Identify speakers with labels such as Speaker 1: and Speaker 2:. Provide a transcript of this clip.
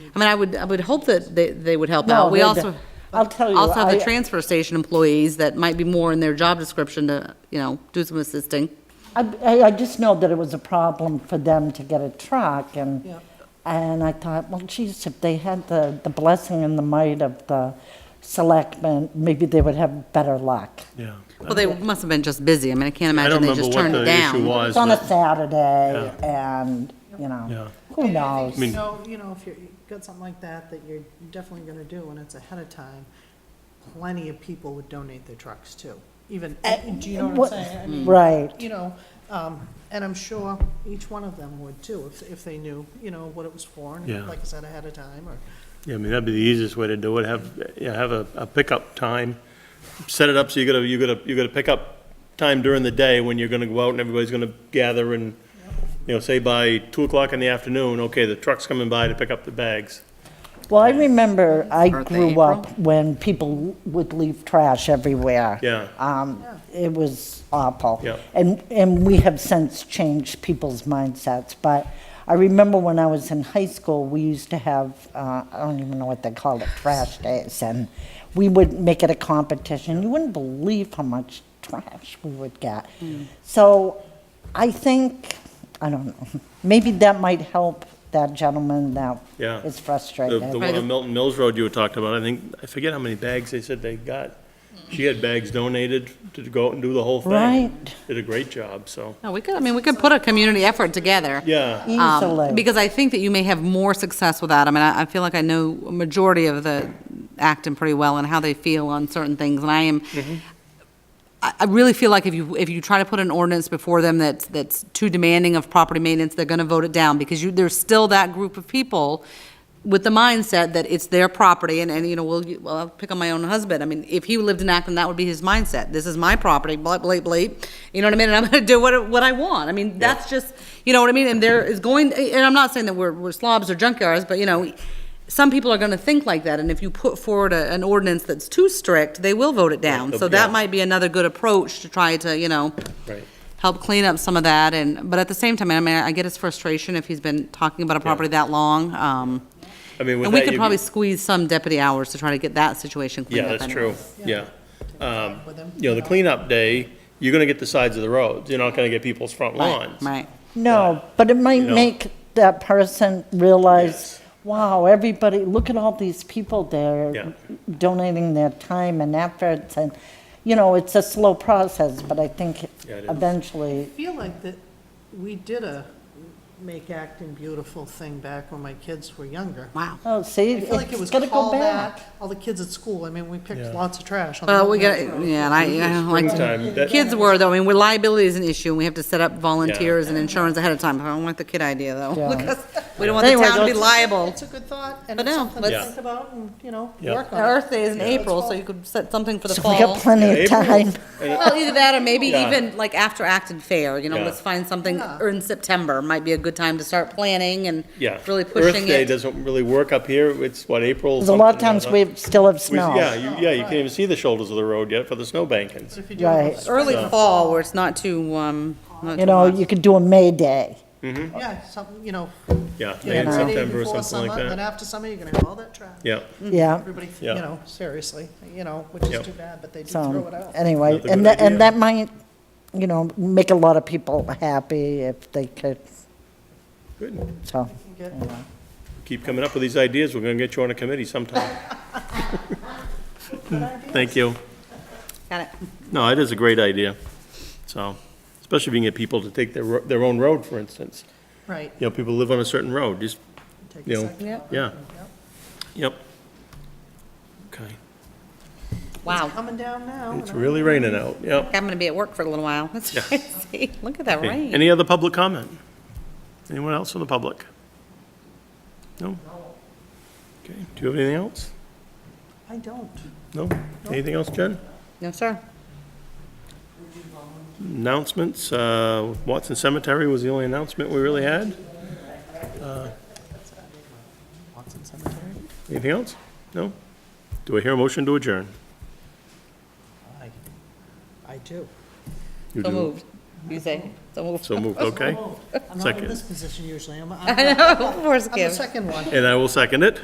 Speaker 1: I mean, I would, I would hope that they, they would help
Speaker 2: No,
Speaker 1: out. We
Speaker 2: they're
Speaker 1: also.
Speaker 2: the- I'll tell you,
Speaker 1: Also have the
Speaker 2: I-
Speaker 1: transfer station employees that might be more in their job description to, you know, do some assisting.
Speaker 2: I, I- I just know that it was a problem for them to get a truck, and, and I thought, well, geez, if they had the, the blessing and the might of the selectmen, maybe they would have better luck.
Speaker 3: Yeah.
Speaker 1: Well, they must have been just busy. I mean, I can't
Speaker 3: I
Speaker 1: imagine
Speaker 3: don't
Speaker 1: they
Speaker 3: remember
Speaker 1: just
Speaker 3: what
Speaker 1: turned
Speaker 3: the
Speaker 1: it
Speaker 3: issue
Speaker 1: down.
Speaker 3: was.
Speaker 2: It's on a
Speaker 3: but-
Speaker 2: Saturday, and, you
Speaker 3: Yeah.
Speaker 2: know, who
Speaker 4: I
Speaker 2: knows?
Speaker 4: think,
Speaker 3: mean-
Speaker 4: you know, you know, if you're- you've got something like that, that you're definitely gonna do, and it's ahead of time, plenty of people would donate their trucks too, even, do you know
Speaker 2: Uh, what-
Speaker 4: what I'm saying? I mean,
Speaker 2: Right.
Speaker 4: You know, um, and I'm sure each one of them would too, if, if they knew, you know, what it was for,
Speaker 3: Yeah.
Speaker 4: and like I said, ahead of time, or,
Speaker 3: Yeah, I mean, that'd be the easiest way to do it, have, yeah, have a, a pickup time, set it up so you gotta, you gotta, you gotta pick up time during the day when you're gonna go out and everybody's gonna gather and, you know, say by two o'clock in the afternoon, okay, the truck's coming by to pick up the bags.
Speaker 2: Well, I remember I
Speaker 1: Aren't they
Speaker 2: grew
Speaker 1: April?
Speaker 2: up when people would leave trash everywhere.
Speaker 3: Yeah.
Speaker 2: Um, it was awful.
Speaker 3: Yeah.
Speaker 2: And, and we have since changed people's mindsets, but I remember when I was in high school, we used to have, uh, I don't even know what they called it, trash days, and we would make it a competition. You wouldn't believe how much trash we would get.
Speaker 1: Mm.
Speaker 2: So I think, I don't know, maybe that might help that gentleman that
Speaker 3: Yeah.
Speaker 2: is
Speaker 3: The,
Speaker 2: frustrated.
Speaker 3: the one on Milton Mills Road you were talking about, I think, I forget how many bags they said they got. She had bags donated to go out and do the whole thing.
Speaker 2: Right.
Speaker 3: Did a great job, so,
Speaker 1: No, we could, I mean, we could put a community effort together.
Speaker 3: yeah.
Speaker 1: um,
Speaker 2: Easily.
Speaker 1: Because I think that you may have more success with that. I mean, I, I feel like I know a majority of the acting pretty well and how they feel on certain things, and I am,
Speaker 3: Mm-hmm.
Speaker 1: I, I really feel like if you, if you try to put an ordinance before them that's, that's too demanding of property maintenance, they're gonna vote it down, because you, there's still that group of people with the mindset that it's their property, and, and, you know, well, you- well, I'll pick on my own husband, I mean, if he lived in Acton, that would be his mindset, this is my property, blah, blah, blah, you know what I mean, and I'm gonna do what, what I want, I mean, that's just, you know what I mean, and there is going, and I'm not saying that we're, we're slobs or junkyards, but, you know, some people are gonna think like that, and if you put forward a, an ordinance that's too strict, they will vote it down, so that
Speaker 3: Yeah.
Speaker 1: might might be another good approach to try to, you know,
Speaker 3: Right.
Speaker 1: help clean up some of that and, but at the same time, I mean, I get his frustration if he's been talking about a property that long. um,
Speaker 3: I mean, with
Speaker 1: And we
Speaker 3: that,
Speaker 1: could
Speaker 3: you-
Speaker 1: probably squeeze some deputy hours to try to get that situation cleaned
Speaker 3: Yeah,
Speaker 1: up.
Speaker 3: that's true,
Speaker 1: anyways.
Speaker 3: yeah. Um,
Speaker 4: with them.
Speaker 3: You know, the cleanup day, you're gonna get the sides of the roads, you're not gonna get people's front
Speaker 1: Right,
Speaker 3: lawns.
Speaker 1: right.
Speaker 2: No, but it might
Speaker 3: You know.
Speaker 2: make that person realize,
Speaker 3: Yes.
Speaker 2: wow, everybody, look at all these people
Speaker 3: Yeah.
Speaker 2: there donating their time and efforts, and, you know, it's a slow process, but I think
Speaker 3: Yeah, it is.
Speaker 2: eventually,
Speaker 4: I feel like that we did a make acting beautiful thing back when my kids were younger.
Speaker 1: Wow.
Speaker 2: oh, see,
Speaker 4: I feel like it was
Speaker 2: it's gonna go
Speaker 4: called
Speaker 2: back.
Speaker 4: that, all the kids at school, I mean, we picked
Speaker 3: Yeah.
Speaker 4: lots of trash on the.
Speaker 1: Well, we got,
Speaker 4: Milton Road.
Speaker 1: yeah, and I, I don't like
Speaker 3: Springtime,
Speaker 1: to,
Speaker 3: that-
Speaker 1: kids were though, I mean, liability is an issue and we have to set up volunteers and insurance ahead of time. I don't want the kid idea though.
Speaker 2: Yeah.
Speaker 1: because We don't want the
Speaker 2: Anyway,
Speaker 1: town to be
Speaker 2: that's-
Speaker 1: liable.
Speaker 4: It's a good thought, and
Speaker 1: But
Speaker 4: it's
Speaker 1: no,
Speaker 4: something to
Speaker 3: let's-
Speaker 4: think about and, you know,
Speaker 3: Yeah.
Speaker 4: work on.
Speaker 1: Earth Day is in April, so you could set something for the
Speaker 2: So
Speaker 1: fall.
Speaker 2: we got plenty of
Speaker 3: April.
Speaker 2: time.
Speaker 1: Well, either that or maybe
Speaker 3: Yeah.
Speaker 1: even like after Acton Fair, you know,
Speaker 3: Yeah.
Speaker 1: let's find something,
Speaker 4: Yeah.
Speaker 1: or in September might be a good time to start planning and
Speaker 3: Yeah.
Speaker 1: really pushing
Speaker 3: Earth Day
Speaker 1: it.
Speaker 3: doesn't really work up here, it's what, April?
Speaker 2: Because a lot of
Speaker 3: something or
Speaker 2: times we
Speaker 3: other.
Speaker 2: still have
Speaker 3: We- Yeah,
Speaker 2: snow.
Speaker 3: you, yeah, you can't even see the shoulders of the road yet for the snow bankings.
Speaker 4: If you do it with
Speaker 2: Right.
Speaker 4: spring,
Speaker 1: Early fall where it's not too, um. not
Speaker 2: You
Speaker 1: too
Speaker 2: know,
Speaker 1: hot.
Speaker 2: you could do a May Day.
Speaker 4: Yeah, something, you know.
Speaker 3: Yeah,
Speaker 4: you
Speaker 3: May and
Speaker 4: know, the day
Speaker 3: September or
Speaker 4: before
Speaker 3: something
Speaker 4: summer,
Speaker 3: like
Speaker 4: Then
Speaker 3: that.
Speaker 4: after summer, you're gonna have all that trash.
Speaker 3: Yeah,
Speaker 2: Yeah.
Speaker 4: Mm-hmm. Everybody,
Speaker 3: Yeah.
Speaker 4: you know, seriously, you know, which
Speaker 3: Yep.
Speaker 4: is too bad, but they do throw it
Speaker 2: So,
Speaker 4: out.
Speaker 2: anyway,
Speaker 3: Another good
Speaker 2: and that,
Speaker 3: idea.
Speaker 2: and that might, you know, make a lot of people happy if they could,
Speaker 3: good.
Speaker 2: so.
Speaker 4: Get-
Speaker 3: Keep coming up with these ideas, we're gonna get you on a committee sometime. Thank you.
Speaker 1: Got it.
Speaker 3: No, it is a great idea, so, especially if you can get people to take their, ro- their own road, for instance.
Speaker 4: Right.
Speaker 3: You know, people live on a certain road, just
Speaker 4: Take
Speaker 3: You
Speaker 4: a
Speaker 3: know,
Speaker 4: second.
Speaker 1: Yep.
Speaker 3: Yeah, yep. Okay.
Speaker 1: Wow.
Speaker 4: Coming down now.
Speaker 3: It's
Speaker 4: and I-
Speaker 3: really raining out, yep.
Speaker 1: I'm gonna be at work for a little while. That's crazy. Look at that
Speaker 3: Okay.
Speaker 1: rain.
Speaker 3: Any other public comment? Anyone else from the public? No? Okay, do you have anything else?
Speaker 4: I don't.
Speaker 3: No? Anything else, Jen?
Speaker 1: No, sir.
Speaker 3: Announcements, uh, Watson Cemetery was the only announcement we really had.
Speaker 4: Watson Cemetery?
Speaker 3: Anything else? No? Do I hear a motion to adjourn?
Speaker 4: I, I do.
Speaker 3: You
Speaker 1: So
Speaker 3: do.
Speaker 1: moved. You say, so moved.
Speaker 3: So moved, okay.
Speaker 4: I'm not in
Speaker 3: Second.
Speaker 4: this position usually, I'm, I'm
Speaker 1: I
Speaker 4: I'm
Speaker 1: know, of course,
Speaker 4: the
Speaker 1: Kim.
Speaker 4: second one.
Speaker 3: And I will second it.